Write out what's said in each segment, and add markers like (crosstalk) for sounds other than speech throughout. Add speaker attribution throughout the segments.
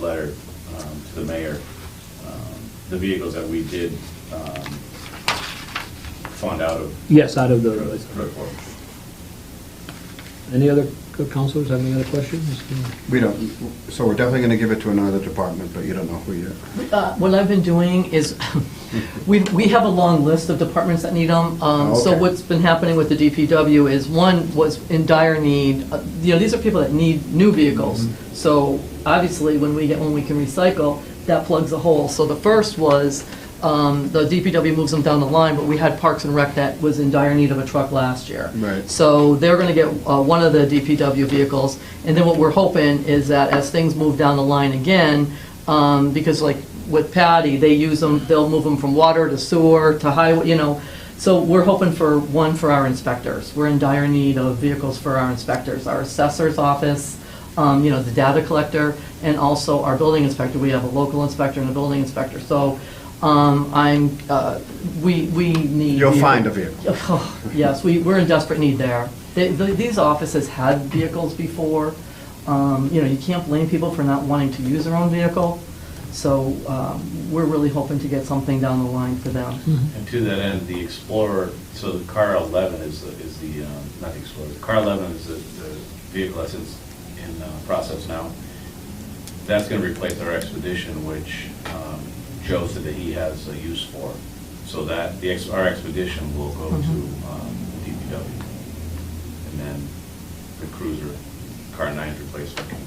Speaker 1: letter um, to the mayor, um, the vehicles that we did um, fund out of.
Speaker 2: Yes, out of the,
Speaker 1: Road road corp.
Speaker 2: any other counselors have any other questions?
Speaker 3: We don't, so we're definitely gonna give it to another department, but you don't know who yet.
Speaker 4: Uh, What I've been doing is, (laughs) we, we have a long list of departments that need them. So
Speaker 3: Okay.
Speaker 4: what's been happening with the DPW is, one was in dire need, uh, you know, these are people that need new vehicles.
Speaker 3: Mm-hmm.
Speaker 4: So obviously, when we get, when we can recycle, that plugs a hole. So the first was, um, the DPW moves them down the line, but we had Parks and Rec that was in dire need of a truck last year.
Speaker 3: Right.
Speaker 4: So they're going to get uh, one of the DPW vehicles, and then what we're hoping is that as things move down the line again, um, because like with Patty, they use them, they'll move them from water to sewer to highway, you know, so we're hoping for one for our inspectors. We're in dire need of vehicles for our inspectors, our assessor's office, um, you know, the data collector, and also our building inspector. We have a local inspector and a building inspector, so um, I'm, uh, we, we need.
Speaker 3: You'll find a vehicle.
Speaker 4: Oh, Yes, we, we're in desperate need there. They- the- These offices had vehicles before. Um, You know, you can't blame people for not wanting to use their own vehicle. So um, we're really hoping to get something down the line for them.
Speaker 1: And to that end, the Explorer, so the car 11 is, the is the, um, not the Explorer, the car 11 is the the vehicle that's in in, uh, process now. That's going to replace our Expedition, which um, Joe said that he has a use for. So that, the, Ex- our Expedition will go to um, DPW. And then the Cruiser, car 9 replacement. can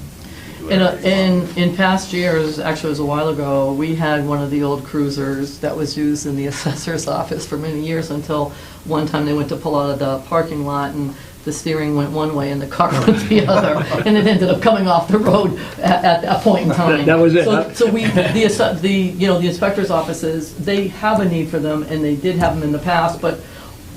Speaker 1: do
Speaker 4: In, a-
Speaker 1: whatever they
Speaker 4: uh, in,
Speaker 1: want.
Speaker 4: in past years, actually it was a while ago, we had one of the old cruisers that was used in the (laughs) assessor's office for many years until one time they went to pull out of the parking lot and the steering went one way and the car (laughs) went
Speaker 2: (laughs)
Speaker 4: the other. And it ended up coming off the road at, at that point in time.
Speaker 2: That was it,
Speaker 4: So-
Speaker 2: huh?
Speaker 4: So we, the, asso- the, you know, the inspector's offices, they have a need for them and they did have them in the past, but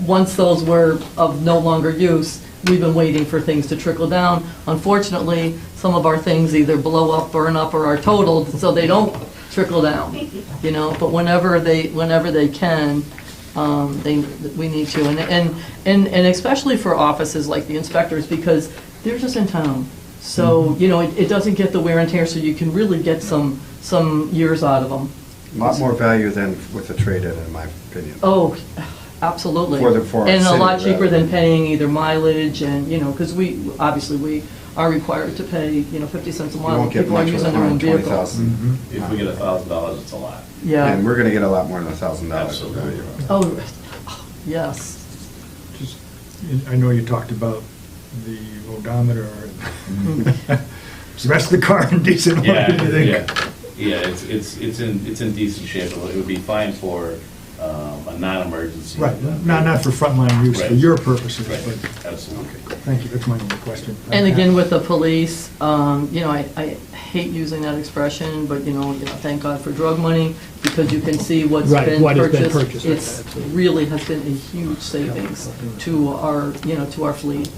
Speaker 4: once those were of no longer use, we've been waiting for things to trickle down. Unfortunately, some of our things either blow up, burn up, or are totaled, so they don't trickle down, you know, but whenever they, whenever they can, um, they, we need to, and, and, and and especially for offices like the inspectors, because they're just in town. So,
Speaker 3: Mm-hmm.
Speaker 4: you know, it, it doesn't get the wear and tear, so you can really get some, some years out of them.
Speaker 3: Lot more value than with the trade-in, in my opinion.
Speaker 4: Oh, absolutely.
Speaker 3: For the- for our
Speaker 4: And a
Speaker 3: city,
Speaker 4: lot cheaper
Speaker 3: rather.
Speaker 4: than paying either mileage and, you know, because we, obviously, we are required to pay, you know, 50 cents a
Speaker 3: You
Speaker 4: mile.
Speaker 3: won't get
Speaker 4: People are
Speaker 3: much with
Speaker 4: using their own vehicles.
Speaker 5: Mm-hmm.
Speaker 3: 120,000.
Speaker 1: If we get a $1,000, it's a lot.
Speaker 3: And
Speaker 4: Yeah.
Speaker 3: we're gonna get a lot more than a thousand dollars.
Speaker 1: Absolutely.
Speaker 4: Oh, yes.
Speaker 5: Just, I know you talked about the odometer, and is the (laughs) rest of the car in decent order,
Speaker 1: Mm-hmm. Yeah,
Speaker 5: do you think?
Speaker 1: yeah, yeah, it's, it's, it's in, it's in decent shape, it would be fine for, um, a non-emergency.
Speaker 5: Right, not, not for frontline use, for
Speaker 1: Right.
Speaker 5: your purposes, but,
Speaker 1: Right, absolutely.
Speaker 5: thank you, that's my only question.
Speaker 4: And again, with the police, um, you know, I, I hate using that expression, but you know, you know, thank God for drug money, because you can see what's
Speaker 2: Right,
Speaker 4: been
Speaker 2: what has been
Speaker 4: purchased.
Speaker 2: purchased, right,
Speaker 4: It's
Speaker 2: absolutely.
Speaker 4: really has been a huge savings to our, you know, to our fleet.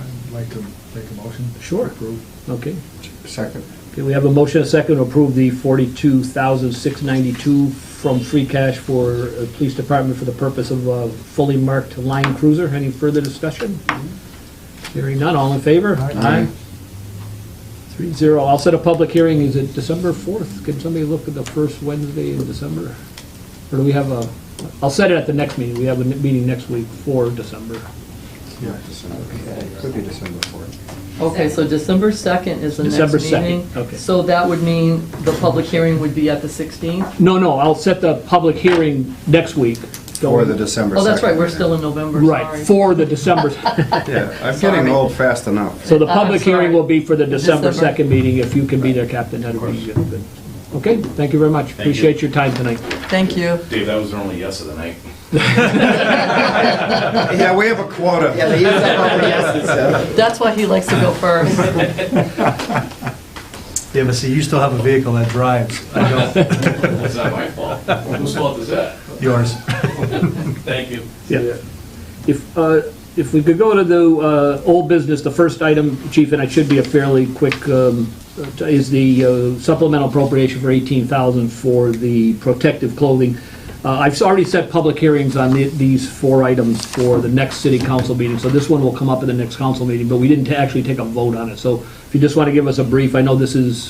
Speaker 5: I'd like to make a motion.
Speaker 2: Sure.
Speaker 5: Approve.
Speaker 2: Okay,
Speaker 3: Second,
Speaker 2: okay, we have a motion, and a second, to approve the forty-two thousand six ninety-two from free cash for uh, police department for the purpose of a fully marked line cruiser. Any further discussion? Hearing none, all in favor?
Speaker 5: Aye.
Speaker 2: Three zero, I'll set a public hearing, is it December fourth? Can somebody look at the first Wednesday in December? Or do we have a, I'll set it at the next meeting, we have a meeting next week for December.
Speaker 3: yeah, December, could be December fourth.
Speaker 4: Okay, so December 2nd is the next meeting?
Speaker 2: December 2nd, okay.
Speaker 4: So that would mean the public hearing would be at the 16th?
Speaker 2: No, no, I'll set the public hearing next week.
Speaker 3: Or the December
Speaker 4: Oh, that's right, we're
Speaker 3: second.
Speaker 4: still in November, sorry.
Speaker 2: Right, for the December,
Speaker 3: Yeah, I'm getting old fast enough.
Speaker 4: (laughs)
Speaker 2: so the
Speaker 4: I'm
Speaker 2: public hearing
Speaker 4: Uh, sorry.
Speaker 2: will be for the December
Speaker 4: December.
Speaker 2: 2nd meeting. If you can be there, Captain, that'd be good. Okay, thank you very much.
Speaker 1: you.
Speaker 2: Appreciate your time tonight.
Speaker 4: Thank you.
Speaker 1: Dave, that was our only yes of the night.
Speaker 3: Yeah, we have a quota.
Speaker 4: That's why he likes to
Speaker 2: (laughs)
Speaker 4: go first.
Speaker 6: Yeah, but see, you still have a vehicle that drives. I don't.
Speaker 1: It's not my fault. Whose fault is that?
Speaker 6: Yours.
Speaker 1: Thank you.
Speaker 2: Yeah. If, uh, if we could go to the uh, old business, the first item, Chief, and it should be a fairly quick, um, is the uh, supplemental appropriation for 18000 for the protective clothing. Uh, I've already set public hearings on the- these four items for the next city council meeting, so this one will come up at the next council meeting, but we didn't ta- actually take a vote on it. So if you just want to give us a brief, I know this is